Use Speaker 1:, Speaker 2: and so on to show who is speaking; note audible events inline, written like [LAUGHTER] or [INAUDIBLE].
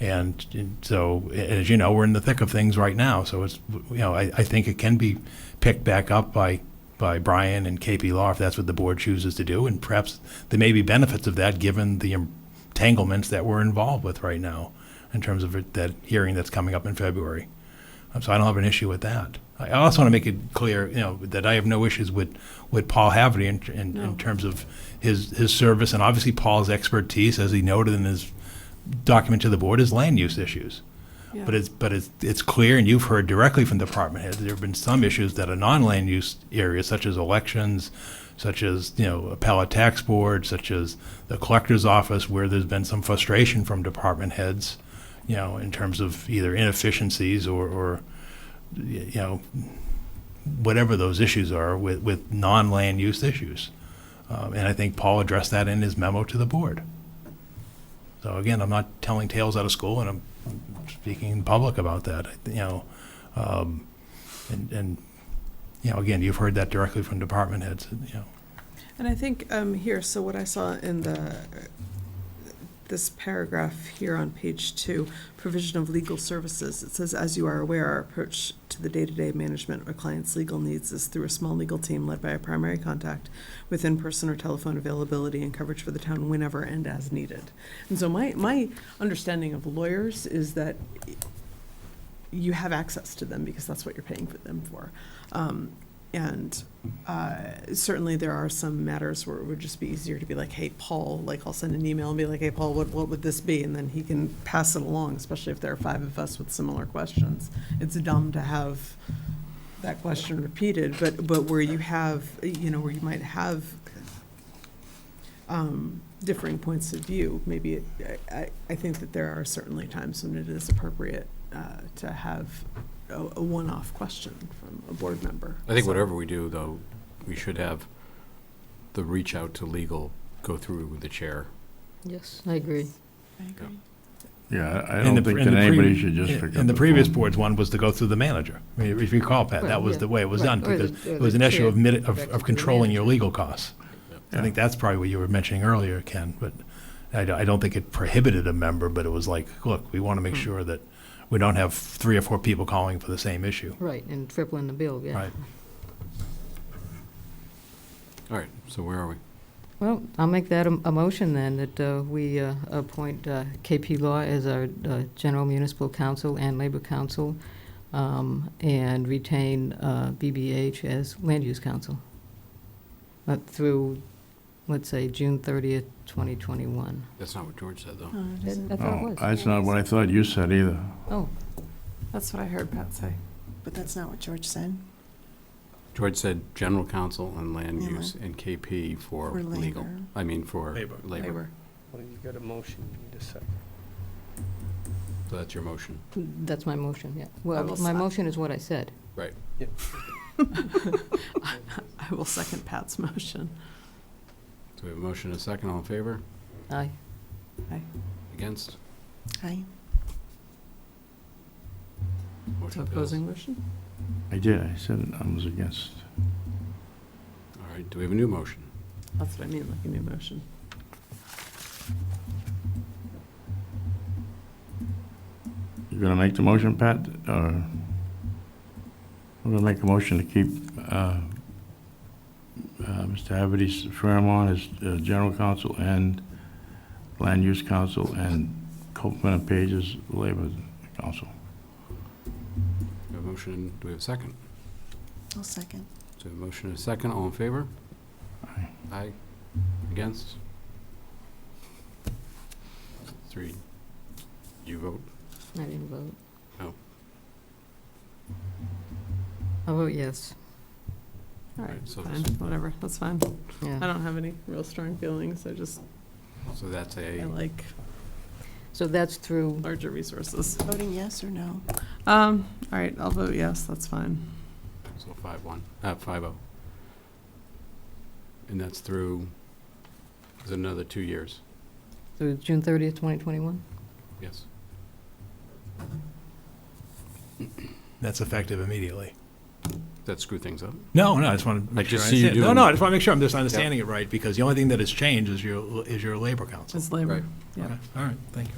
Speaker 1: And and so, as you know, we're in the thick of things right now. So it's, you know, I, I think it can be picked back up by, by Brian and KP Law if that's what the board chooses to do. And perhaps there may be benefits of that given the entanglements that we're involved with right now in terms of it- that hearing that's coming up in February. Um, So I don't have an issue with that. I I also want to make it clear, you know, that I have no issues with, with Paul Haverty in, in, in terms of his, his service and obviously Paul's expertise, as he noted in his document to the board, is land use issues. But it's, but it's, it's clear, and you've heard directly from department heads, there have been some issues that are non-land use areas, such as elections, such as, you know, appellate tax board, such as the collector's office, where there's been some frustration from department heads, you know, in terms of either inefficiencies or, or, y- you know, whatever those issues are with, with non-land use issues. Um, and I think Paul addressed that in his memo to the board. So again, I'm not telling tales out of school, and I'm speaking in public about that, you know. um, And, and, you know, again, you've heard that directly from department heads, you know.
Speaker 2: And I think um, here, so what I saw in the, this paragraph here on page two, provision of legal services, it says, as you are aware, our approach to the day-to-day management of our clients' legal needs is through a small legal team led by a primary contact with in-person or telephone availability and coverage for the town whenever and as needed. And so my, my understanding of lawyers is that you have access to them because that's what you're paying for them for. Um, and uh, certainly there are some matters where it would just be easier to be like, hey, Paul, like I'll send an email and be like, hey, Paul, what, what would this be? And then he can pass it along, especially if there are five of us with similar questions. It's dumb to have that question repeated, but, but where you have, you know, where you might have um, differing points of view, maybe, it- I, I- I think that there are certainly times when it is appropriate uh, to have a, a one-off question from a board member.
Speaker 3: I think
Speaker 2: So-
Speaker 3: whatever we do, though, we should have the reach out to legal go through with the chair.
Speaker 4: Yes, I agree.
Speaker 2: I
Speaker 3: agree.
Speaker 5: Yeah, I I
Speaker 1: In the
Speaker 5: don't think
Speaker 1: pre- in
Speaker 5: that
Speaker 1: the
Speaker 5: anybody
Speaker 1: previ-
Speaker 5: should just
Speaker 1: in-
Speaker 5: pick up
Speaker 1: In the previous
Speaker 5: phone.
Speaker 1: boards, one was to go through the manager. I mean, if you recall, Pat, that
Speaker 4: Right,
Speaker 1: was
Speaker 4: yeah.
Speaker 1: the way it was
Speaker 4: Right,
Speaker 1: done,
Speaker 4: or the-
Speaker 1: because
Speaker 4: or
Speaker 1: it was
Speaker 4: the
Speaker 1: an issue
Speaker 4: chair
Speaker 1: of, miti- of-
Speaker 4: directed to
Speaker 1: of
Speaker 4: the
Speaker 1: controlling your
Speaker 4: manager.
Speaker 1: legal costs. I
Speaker 5: Yeah.
Speaker 1: think that's probably what you were mentioning earlier, Ken, but I, don't- I don't think it prohibited a member, but it was like, look, we want to make
Speaker 4: Hmm.
Speaker 1: sure that we don't have three or four people calling for the same issue.
Speaker 4: Right, and tripling the bill, yeah.
Speaker 1: Right.
Speaker 3: All right, so where are we?
Speaker 4: Well, I'll make that a, a motion then, that uh, we uh, appoint uh, KP Law as our uh, general municipal counsel and labor counsel, um, and retain uh, BBH as land use counsel uh, through, let's say, June 30th, 2021.
Speaker 3: That's not what George said, though.
Speaker 4: I thought it
Speaker 1: Oh,
Speaker 5: No,
Speaker 4: was.
Speaker 5: that's not what I thought you said either.
Speaker 4: Oh,
Speaker 2: That's what I heard Pat say.
Speaker 6: But that's not what George said.
Speaker 3: George said general counsel and land
Speaker 6: Yeah.
Speaker 3: use and KP for
Speaker 6: For
Speaker 3: legal.
Speaker 6: labor.
Speaker 3: I mean, for
Speaker 1: Labor.
Speaker 3: labor.
Speaker 7: Well, you've got a motion, you need a second.
Speaker 3: So that's your motion.
Speaker 4: that's my motion, yeah. Well,
Speaker 2: will
Speaker 4: my
Speaker 2: s-
Speaker 4: motion is what I said.
Speaker 2: I will second Pat's [LAUGHS] motion.
Speaker 3: So we have a motion and a second. All in favor?
Speaker 4: Aye.
Speaker 3: Against?
Speaker 6: Aye.
Speaker 3: Motion fails.
Speaker 2: Opposing motion?
Speaker 5: I did, I said it, I was against.
Speaker 3: All right, do we have a new motion?
Speaker 2: That's what I mean, like a new motion.
Speaker 5: You gonna make the motion, Pat, or? I'm gonna make a motion to keep, uh, uh, Mr. Haverty's firm on as uh, general counsel and land use counsel and Copeland and Page's labor counsel.
Speaker 3: Do we have a motion? Do we have a second?
Speaker 6: I'll second.
Speaker 3: So we have a motion and a second. All in favor?
Speaker 5: Aye.
Speaker 3: Aye. Against? Three. You vote.
Speaker 4: I didn't vote.
Speaker 3: No.
Speaker 4: I vote yes,
Speaker 2: All
Speaker 3: Right,
Speaker 2: right,
Speaker 3: so
Speaker 2: fine, whatever, that's fine. I
Speaker 4: yeah.
Speaker 2: don't have any real strong feelings, I just,
Speaker 3: So that's
Speaker 2: I
Speaker 3: a,
Speaker 2: like
Speaker 4: So that's through,
Speaker 2: larger resources.
Speaker 6: Voting yes or no?
Speaker 2: Um, all right, I'll vote yes, that's fine.
Speaker 3: so five one, uh, five oh. And that's through, is it another two years?
Speaker 4: through June 30th, 2021?
Speaker 3: Yes.
Speaker 1: That's effective immediately.
Speaker 3: That screw things up?
Speaker 1: No, no, I just want to make sure.
Speaker 3: just
Speaker 1: I
Speaker 3: see you
Speaker 1: understand. No,
Speaker 3: doing-
Speaker 1: no, I just want to make sure I'm just understanding it right, because the only thing that has changed is your, is your labor council.
Speaker 2: It's labor.
Speaker 3: Right.
Speaker 2: Yeah.
Speaker 1: Okay, All right, thank you.